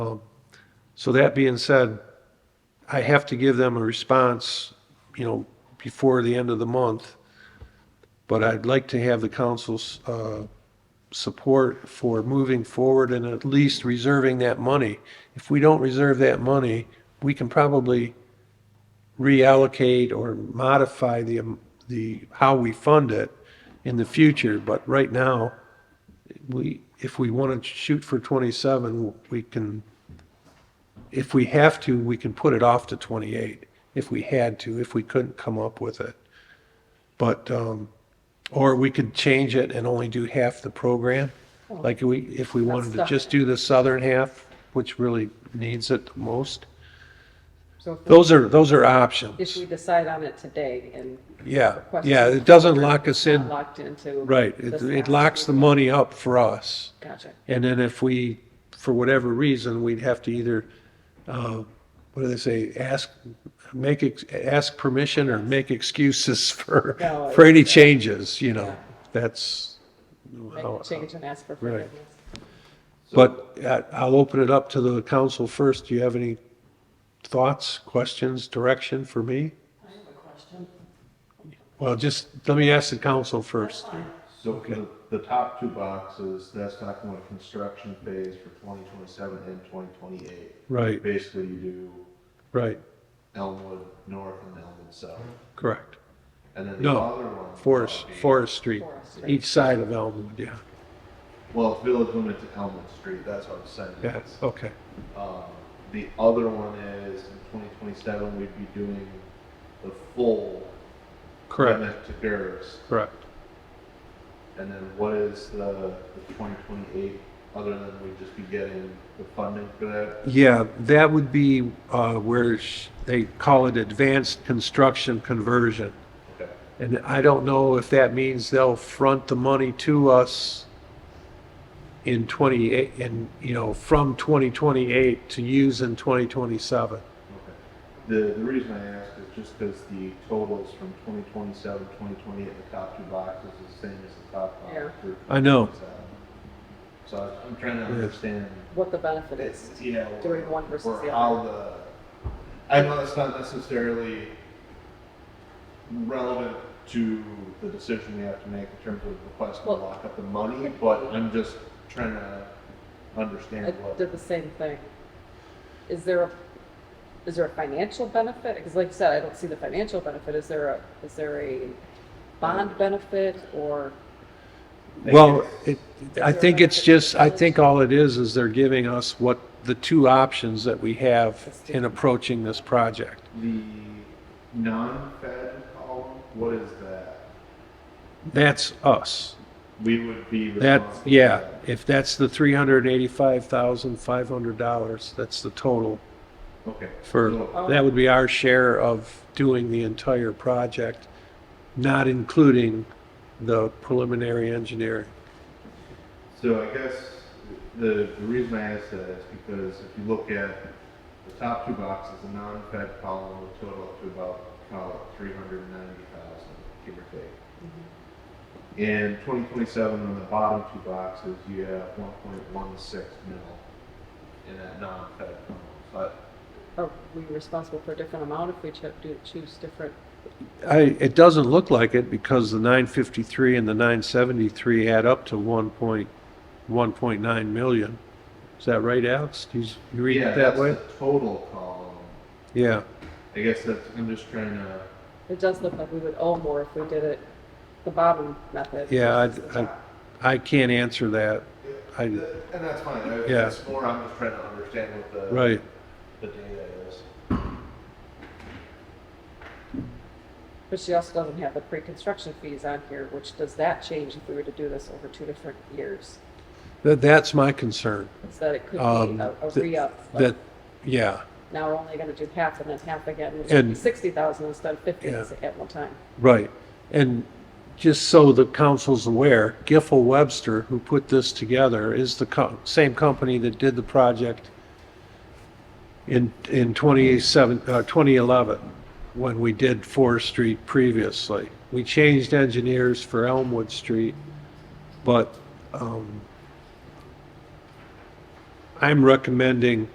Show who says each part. Speaker 1: So that being said, I have to give them a response, you know, before the end of the month. But I'd like to have the council's uh, support for moving forward and at least reserving that money. If we don't reserve that money, we can probably reallocate or modify the, um, the, how we fund it in the future. But right now, we, if we want to shoot for 27, we can if we have to, we can put it off to 28, if we had to, if we couldn't come up with it. But, um, or we could change it and only do half the program. Like we, if we wanted to
Speaker 2: That's the-
Speaker 1: just do the southern half, which really needs it the most.
Speaker 2: So if we-
Speaker 1: Those are, those are
Speaker 2: if
Speaker 1: options.
Speaker 2: we decide on it today and
Speaker 1: Yeah,
Speaker 2: request.
Speaker 1: yeah, it doesn't lock us
Speaker 2: Not
Speaker 1: in,
Speaker 2: Locked into.
Speaker 1: right, it,
Speaker 2: this
Speaker 1: it
Speaker 2: act.
Speaker 1: locks the money up for us.
Speaker 2: Gotcha.
Speaker 1: And then if we, for whatever reason, we'd have to either, uh, what do they say, ask, make, ex- ask permission or make excuses for,
Speaker 2: No,
Speaker 1: for any changes, you know? That's,
Speaker 2: Make
Speaker 1: how-
Speaker 2: a change and ask for
Speaker 1: Oh, Right.
Speaker 2: forgiveness.
Speaker 1: but uh, I'll open it up to the council first. Do you have any thoughts, questions, direction for me?
Speaker 3: I have a question.
Speaker 1: Well, just, let me ask the council first.
Speaker 4: So for the, the top two boxes, that's talking about construction phase for twenty twenty-seven and twenty twenty-eight.
Speaker 1: Right,
Speaker 4: Basically, you do
Speaker 1: right,
Speaker 4: Elmwood North and Elmwood South.
Speaker 1: correct.
Speaker 4: And then the other
Speaker 1: No,
Speaker 4: one.
Speaker 1: Forest, Forest Street,
Speaker 2: Forest Street.
Speaker 1: each side of Elmwood, yeah,
Speaker 4: Well, it's Village Women to Elmwood Street, that's what I'm saying.
Speaker 1: yeah, okay.
Speaker 4: Um, the other one is in twenty twenty-seven, we'd be doing the full.
Speaker 1: Correct,
Speaker 4: limit To Gerst.
Speaker 1: correct.
Speaker 4: And then what is the, the twenty twenty-eight, other than we'd just be getting the funding for that?
Speaker 1: Yeah, that would be uh, where sh- they call it advanced construction conversion.
Speaker 4: Okay.
Speaker 1: And I don't know if that means they'll front the money to us in 28, in, you know, from 2028 to use in 2027.
Speaker 4: Okay. The, the reason I ask is just because the totals from 2027, 2028, the top two boxes is the same as the top
Speaker 2: Yeah.
Speaker 4: box. for
Speaker 1: I know.
Speaker 4: 2027. So I- I'm trying to
Speaker 1: Yeah.
Speaker 4: understand,
Speaker 2: What the benefit
Speaker 4: it's,
Speaker 2: is.
Speaker 4: you know.
Speaker 2: Doing one versus
Speaker 4: or
Speaker 2: the other.
Speaker 4: How the, I know that's not necessarily relevant to the decision we have to make in terms of requesting to
Speaker 2: Well-
Speaker 4: lock up the money, but I'm just trying to
Speaker 2: I
Speaker 4: understand what.
Speaker 2: did the same thing. Is there a, is there a financial benefit? Because like you said, I don't see the financial benefit. Is there a, is there a bond benefit or?
Speaker 4: Thank
Speaker 1: Well,
Speaker 4: you.
Speaker 1: it, I think it's just, I think all it is, is they're giving us what, the two options that we have in approaching this project.
Speaker 4: The non-fed column, what is that?
Speaker 1: That's us.
Speaker 4: We would be
Speaker 1: That,
Speaker 4: responsible.
Speaker 1: yeah, if that's the three hundred and eighty-five thousand, five hundred dollars, that's the total
Speaker 4: Okay.
Speaker 1: for,
Speaker 4: So-
Speaker 1: that would be our share of doing the entire project, not including the preliminary engineering.
Speaker 4: So I guess the, the reason I ask that is because if you look at the top two boxes, the non-fed column will total up to about, call it three hundred and ninety thousand, give or take. In twenty twenty-seven, on the bottom two boxes, you have one point one six mil in that non-fed column. But
Speaker 2: Are we responsible for a different amount if we cho- do choose different?
Speaker 1: I, it doesn't look like it because the nine fifty-three and the nine seventy-three add up to one point, one point nine million. Is that right, Alex? Do you, you read
Speaker 4: yeah,
Speaker 1: it that
Speaker 4: that's
Speaker 1: way?
Speaker 4: the total column.
Speaker 1: Yeah,
Speaker 4: I guess that's, I'm just trying to,
Speaker 2: It does look like we would owe more if we did it the bottom method.
Speaker 1: yeah,
Speaker 2: versus the
Speaker 1: I, I, I can't answer that. I,
Speaker 4: and that's fine, I-
Speaker 1: Yeah.
Speaker 4: it's more, I'm just trying to understand what the.
Speaker 1: right.
Speaker 4: The data is.
Speaker 2: But she also doesn't have the pre-construction fees on here, which does that change if we were to do this over two different years?
Speaker 1: That, that's my concern.
Speaker 2: Is that it could be
Speaker 1: Um,
Speaker 2: a, a
Speaker 1: th-
Speaker 2: re-up, like
Speaker 1: That, yeah,
Speaker 2: now we're only gonna do half and then half again, which would
Speaker 1: And-
Speaker 2: be sixty thousand instead of fifty
Speaker 1: Yeah.
Speaker 2: at one time.
Speaker 1: right. And just so the council's aware, Giffel Webster, who put this together, is the co- same company that did the project in, in 27, uh, 2011, when we did Forest Street previously. We changed engineers for Elmwood Street, but, um, I'm recommending